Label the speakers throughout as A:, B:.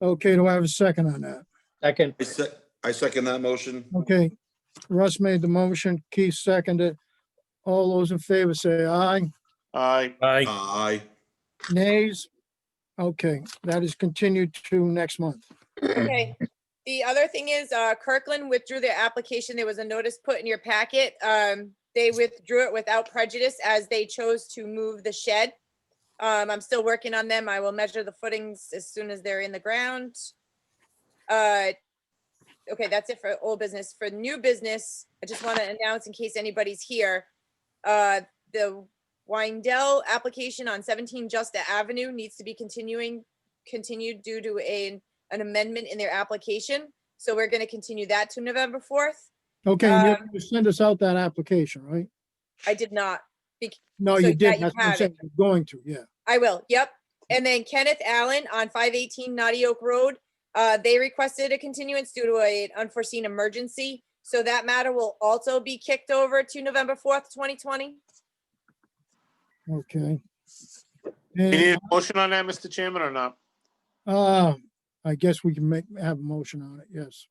A: Okay, do I have a second on that?
B: Second,
C: I sec, I second that motion.
A: Okay, Russ made the motion, Keith seconded. All those in favor say aye.
D: Aye.
E: Aye.
C: Aye.
A: Nays? Okay, that is continued to next month.
F: Okay. The other thing is uh, Kirkland withdrew their application. There was a notice put in your packet. Um, They withdrew it without prejudice as they chose to move the shed. Um, I'm still working on them. I will measure the footings as soon as they're in the ground. Uh, Okay, that's it for old business. For new business, I just want to announce in case anybody's here. uh, The Windell application on 17 Justa Avenue needs to be continuing, continued due to a an amendment in their application. So we're going to continue that to November 4th.
A: Okay, and
F: Uh,
A: you're gonna send us out that application, right?
F: I did not.
A: No,
F: so
A: you
F: yeah,
A: did.
F: you
A: That's what I'm
F: have it.
A: saying. You're Going to, yeah.
F: I will. Yep. And then Kenneth Allen on 518 Naughty Oak Road. Uh, they requested a continuance due to an unforeseen emergency. So that matter will also be kicked over to November 4th, 2020.
A: Okay.
D: You need
A: And,
D: a motion on that, Mr. Chairman, or not?
A: uh, I guess we can make, have a motion on it, yes.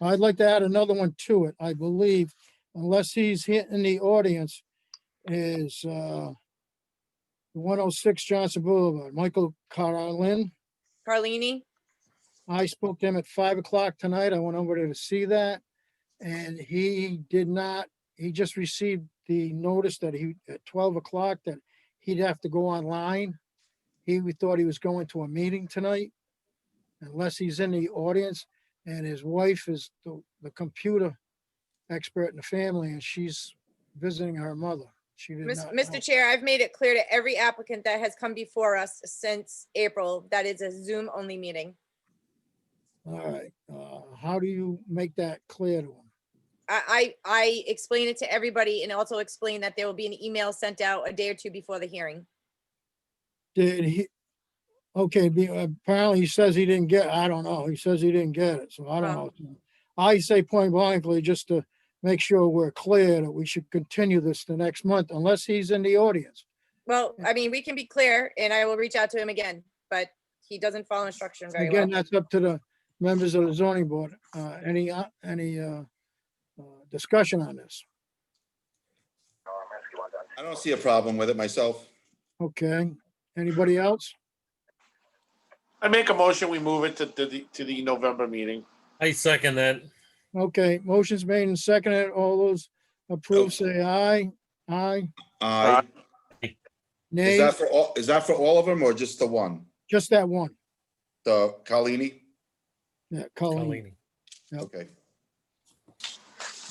A: I'd like to add another one to it, I believe, unless he's here in the audience, is, uh, one oh six Johnson Boulevard, Michael Carlin.
F: Carlini,
A: I spoke to him at five o'clock tonight. I went over there to see that. And he did not, he just received the notice that he, at twelve o'clock, that he'd have to go online. He, we thought he was going to a meeting tonight, unless he's in the audience. And his wife is the, the computer expert in the family, and she's visiting her mother. She did
F: Mis-
A: not. know.
F: Mr. Chair, I've made it clear to every applicant that has come before us since April, that is a Zoom only meeting.
A: All right, uh, how do you make that clear to him?
F: I, I, I explain it to everybody and also explain that there will be an email sent out a day or two before the hearing.
A: Did he? Okay, be- apparently he says he didn't get, I don't know, he says he didn't get it, so I don't know.
F: Well-
A: I say point blankly, just to make sure we're clear that we should continue this the next month unless he's in the audience.
F: Well, I mean, we can be clear and I will reach out to him again, but he doesn't follow instruction very
A: Again, uh
F: well.
A: that's up to the members of the zoning board. Uh, any, uh, any, uh, uh, discussion on this?
C: I don't see a problem with it myself.
A: Okay, anybody else?
D: I make a motion, we move it to, to the, to the November meeting.
E: I second that.
A: Okay, motions made and seconded. All those approved, say aye. Aye,
C: Aye. Is
A: nay,
C: that for all, is that for all of them or just the one?
A: just that one.
C: The Carlini?
A: Yeah, Colleen.
E: Colleen.
A: Yep.
C: Okay.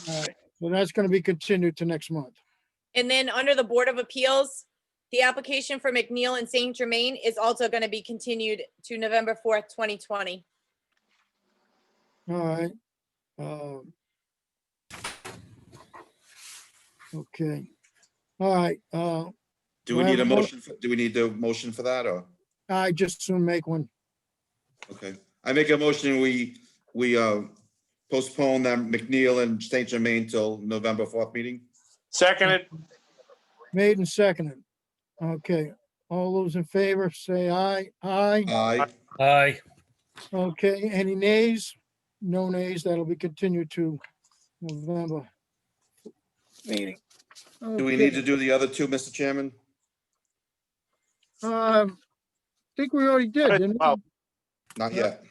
A: All right, so that's gonna be continued to next month.
F: And then under the Board of Appeals, the application for McNeil and St. Germain is also going to be continued to November 4th, 2020.
A: All right. um, Okay. All right, uh,
C: Do
A: Do
C: we
A: I
C: need a
A: have a mo-
C: motion? for- Do we need a motion for that or?
A: I just soon make one.
C: Okay. I make a motion, we, we uh postpone that McNeil and St. Germain till November 4th meeting?
D: Seconded,
A: Made and seconded. Okay, all those in favor, say aye. Aye.
C: Aye.
E: Aye.
A: Okay, any nays? No nays, that'll be continued to November. Meeting.
C: Do we need to do the other two, Mr. Chairman?
A: Um, think we already did, didn't we?
D: Wow.
C: Not yet.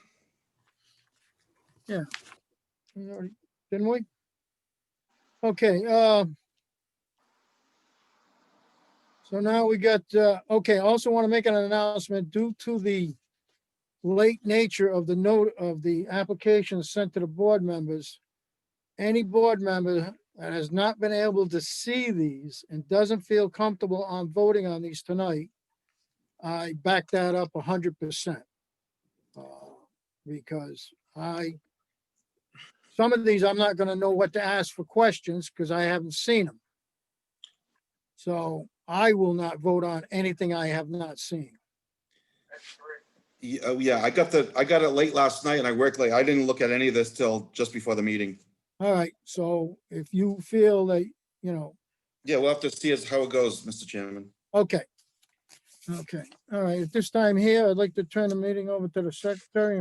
A: We already- Didn't we? Okay, um. So now we got, uh, okay, I also want to make an announcement due to the late nature of the note of the application sent to the board members. Any board member that has not been able to see these and doesn't feel comfortable on voting on these tonight, I back that up a hundred percent. uh, Because I some of these, I'm not gonna know what to ask for questions because I haven't seen them. So I will not vote on anything I have not seen.
C: Yeah, oh, yeah, I got the, I got it late last night and I worked late. I didn't look at any of this till just before the meeting.
A: All right, so if you feel that, you know,
C: Yeah, we'll have to see as how it goes, Mr. Chairman.
A: okay. Okay, all right, at this time here, I'd like to turn the meeting over to the secretary and